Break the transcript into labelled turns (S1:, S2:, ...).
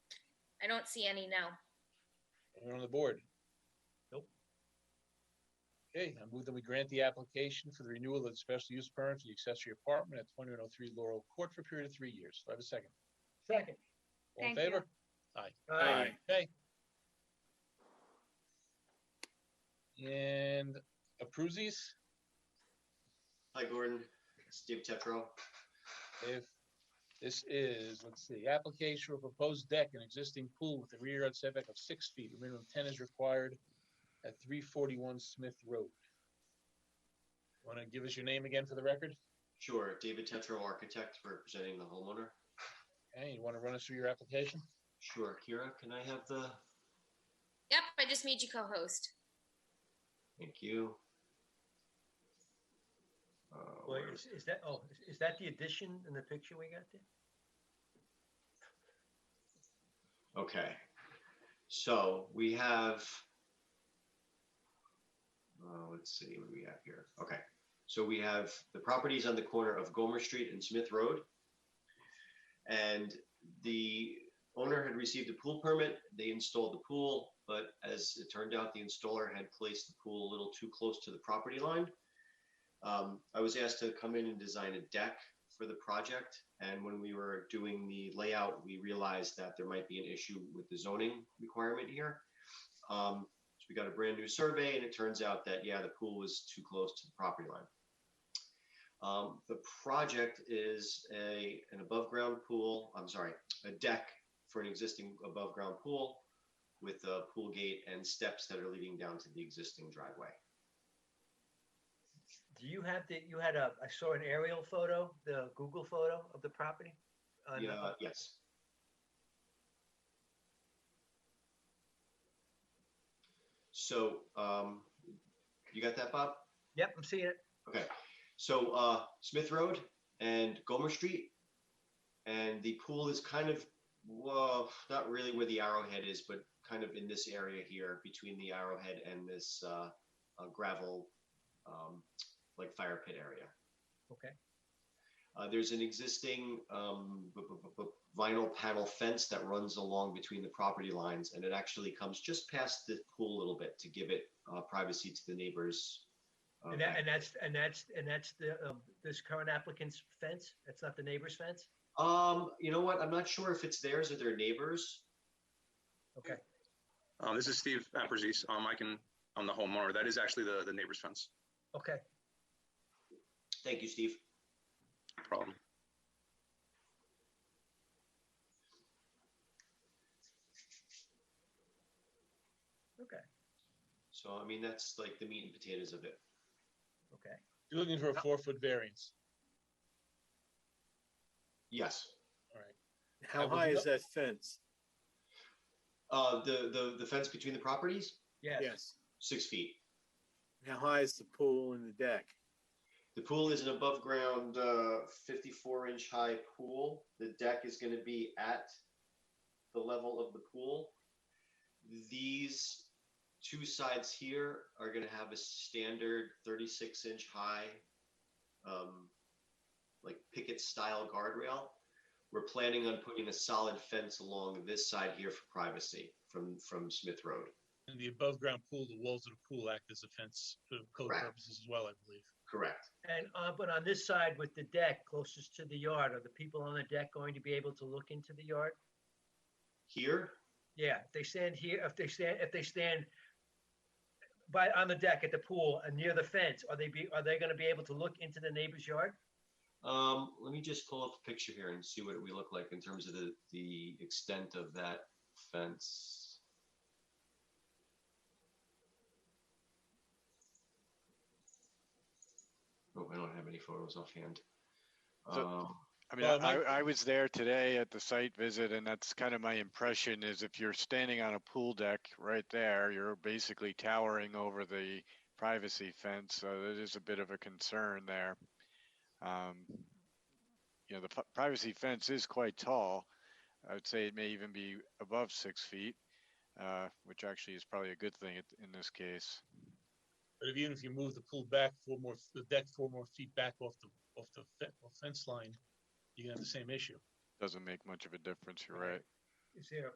S1: I don't see any now.
S2: Anyone on the board?
S3: Nope.
S2: Okay, I move that we grant the application for the renewal of the special use permit for the accessory apartment at twenty-one oh three Laurel Court for a period of three years. Do I have a second?
S3: Second.
S2: All in
S4: Thank you.
S2: favor?
S3: Aye.
S2: Okay. And approves these?
S5: Hi, Gordon. Steve Tetro.
S2: If this is, let's see, application for proposed deck and existing pool with a rear yard setback of six feet, a minimum ten is required at three forty-one Smith Road. Want to give us your name again for the record?
S5: Sure, David Tetro, architect representing the homeowner.
S2: Okay, you want to run us through your application?
S5: Sure, Kira, can I have the,
S1: Yep, I just made you co-host.
S5: thank you. Uh,
S3: Wait,
S5: where-
S3: is, is that, oh, is- is that the addition in the picture we got there?
S5: Okay, so we have. Uh, let's see, what do we have here? Okay, so we have the properties on the corner of Gomer Street and Smith Road. And the owner had received a pool permit, they installed the pool, but as it turned out, the installer had placed the pool a little too close to the property line. Um, I was asked to come in and design a deck for the project. And when we were doing the layout, we realized that there might be an issue with the zoning requirement here. Um, so we got a brand new survey and it turns out that, yeah, the pool was too close to the property line. Um, the project is a, an above ground pool, I'm sorry, a deck for an existing above ground pool with a pool gate and steps that are leading down to the existing driveway.
S3: Do you have the, you had a, I saw an aerial photo, the Google photo of the property? on,
S5: Yeah,
S3: uh,
S5: yes. So, um, you got that, Bob?
S3: Yep, I'm seeing it.
S5: Okay, so, uh, Smith Road and Gomer Street. And the pool is kind of, well, not really where the arrowhead is, but kind of in this area here between the arrowhead and this, uh, uh, gravel, um, like fire pit area.
S3: Okay.
S5: Uh, there's an existing um, b- b- b- vinyl panel fence that runs along between the property lines, and it actually comes just past the pool a little bit to give it uh, privacy to the neighbors. uh,
S3: And that,
S5: back-
S3: and that's, and that's, and that's the, um, this current applicant's fence? That's not the neighbor's fence?
S5: um, you know what? I'm not sure if it's theirs or their neighbors.
S3: Okay,
S6: Um, this is Steve Aperzis. Um, I can, I'm the homeowner. That is actually the, the neighbor's fence.
S3: okay.
S5: Thank you, Steve.
S6: No Problem.
S5: So, I mean, that's like the meat and potatoes of it.
S3: Okay.
S2: You're looking for a four-foot variance.
S5: Yes.
S2: All right.
S7: How
S2: Have a
S7: high
S2: good-
S7: is that fence?
S5: Uh, the, the the fence between the properties,
S3: Yes.
S7: Yes.
S5: six feet.
S7: How high is the pool and the deck?
S5: The pool is an above ground uh, 54 inch high pool. The deck is going to be at the level of the pool. These two sides here are going to have a standard 36 inch high, um, like picket style guardrail. We're planning on putting a solid fence along this side here for privacy from, from Smith Road.
S2: And the above-ground pool, the walls of the pool act as a fence for code
S5: Correct.
S2: purposes as well, I believe.
S5: Correct.
S3: And, uh, but on this side with the deck closest to the yard, are the people on the deck going to be able to look into the yard?
S5: Here,
S3: Yeah, if they stand here, if they stand, if they stand by, on the deck at the pool and near the fence, are they be, are they gonna be able to look into the neighbor's yard?
S5: Um, let me just pull up a picture here and see what we look like in terms of the, the extent of that fence. Oh, I don't have any photos offhand.
S8: So-
S5: Um,
S8: I mean,
S2: Well,
S8: I,
S2: my-
S8: I was there today at the site visit and that's kind of my impression is if you're standing on a pool deck right there, you're basically towering over the privacy fence. So that is a bit of a concern there. Um, you know, the p- privacy fence is quite tall. I would say it may even be above six feet, uh, which actually is probably a good thing at- in this case.
S2: But if- even if you move the pool back four more, the deck four more feet back off the, off the fe- off fence line, you're gonna have the same issue.
S8: Doesn't make much of a difference. You're right.
S3: Is there,